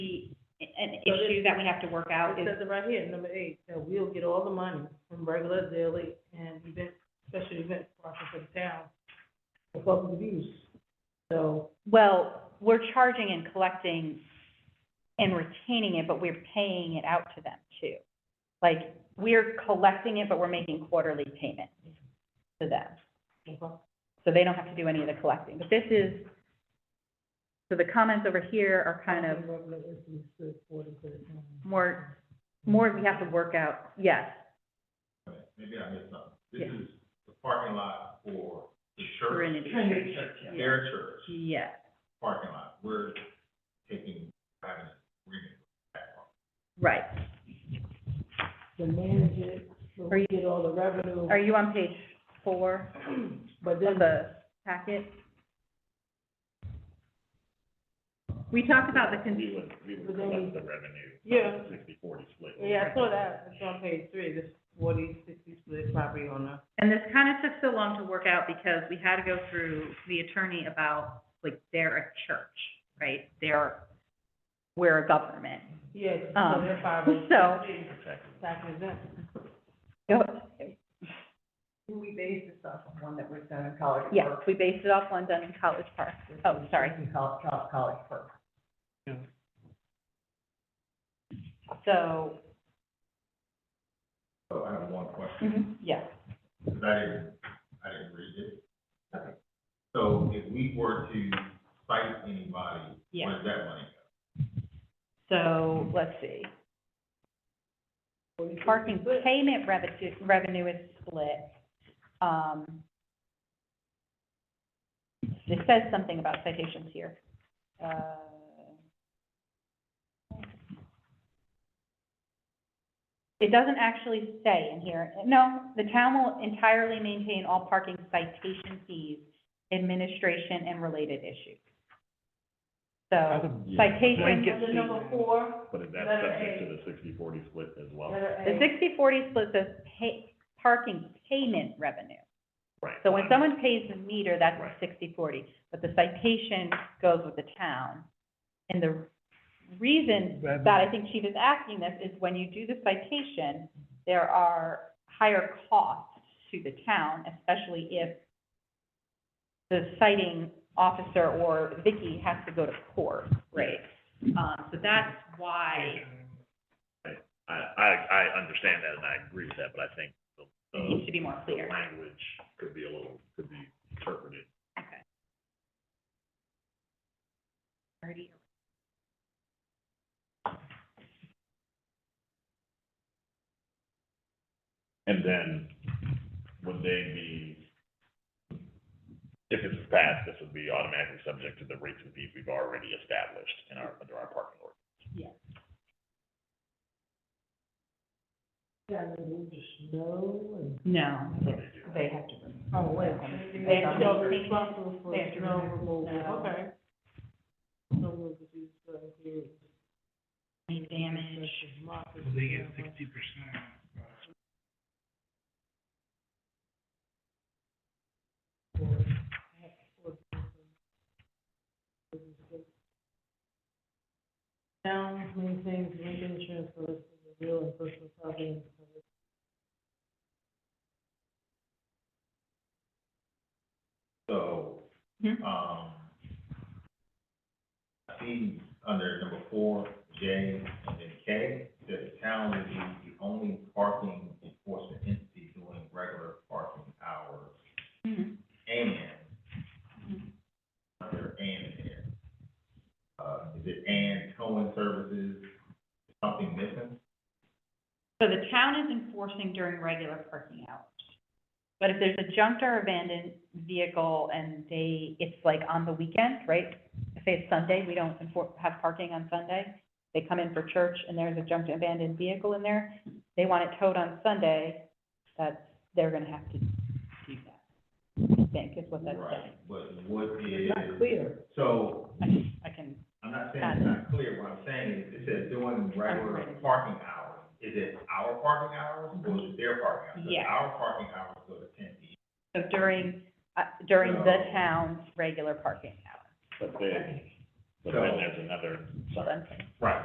issue that we have to work out It is, says it right here, number eight, that we'll get all the money from regular daily and event, special event profit for the town for public use. So, well, we're charging and collecting and retaining it, but we're paying it out to them too. Like, we're collecting it, but we're making quarterly payments to them. So they don't have to do any of the collecting. But this is, so the comments over here are kind of more, more we have to work out, yes. Okay, Maybe I missed something. This Yeah. is the parking lot for the church, Serenity. Trinity Church, yeah. their church Yes, parking lot. We're taking, having an agreement with that one. right. the manager, so we get all the revenue, Are you on page four but of then the packet? We talked about the, con- We would, we But would then collect we- the revenue. Yeah. Sixty, forty split. Yeah, I saw that, it's on page three, this forty, sixty split property owner. and this kind of took so long to work out because we had to go through the attorney about, like, they're a church, right? They're, we're a government. Yes, Um, so they're five oh so- six, tax exempt. We base this off of one that was done in College Yes, Park. we based it off one done in College Park. Oh, sorry. In Col- Col- College Park. So, So I have one question, mhm, yes, because I didn't, I didn't read it. So if we were to cite anybody, Yeah. where's that money so let's see. Parking payment revenue, revenue is split. Um, It says something about citations here. Uh, It doesn't actually say in here, no, the town will entirely maintain all parking citation fees, administration, and related issues. So citation, And then number four, But is that Letter subject A. to the sixty, forty split as well? letter The A, sixty-forty split says pay, parking payment revenue. Right. So when someone pays the meter, that's Right. the sixty-forty, but the citation goes with the town. And the reason that I think Chief is asking this is when you do the citation, there are higher costs to the town, especially if the citing officer or Vicky has to go to court, right? Um, so that's why I, I, I understand that and I agree with that, but I think the, it needs to the, be more the clear. language could be a little, could be interpreted. Okay. Already. And then would they be, if this is passed, this would be automatically subject to the rates and fees we've already established in our, under our parking ordinance. yeah, and then just no, and. No, What they do. they have to. Oh, wait. They have to So remove- responsible for they have to snow remove removal, snow. okay. Snow removal is, uh, included. Any damage. Market They get snow. sixty percent. Town maintains rental insurance for the real and personal property. and public- So, Mhm. um, I see under number four, J and then K, that the town will be the only parking enforcement entity doing regular parking hours and, under and in here. Uh, is it and towing services, something missing? So the town is enforcing during regular parking hours. But if there's a junked or abandoned vehicle and they, it's like on the weekend, right? Say it's Sunday, we don't enfor- have parking on Sunday. They come in for church and there's a junked and abandoned vehicle in there. They want it towed on Sunday, that's, they're gonna have to do that. I think is what that's Right, saying. but what is, It's not clear. so I can, I'm not saying it's not clear, what I'm saying is, it says doing regular parking hours. Is it our parking hours or is it their parking hours? 'Cause Yeah. Our parking hours go to ten P so during, uh, during the town's regular parking hours, But they, but So- then there's another so subject. then. M. Right.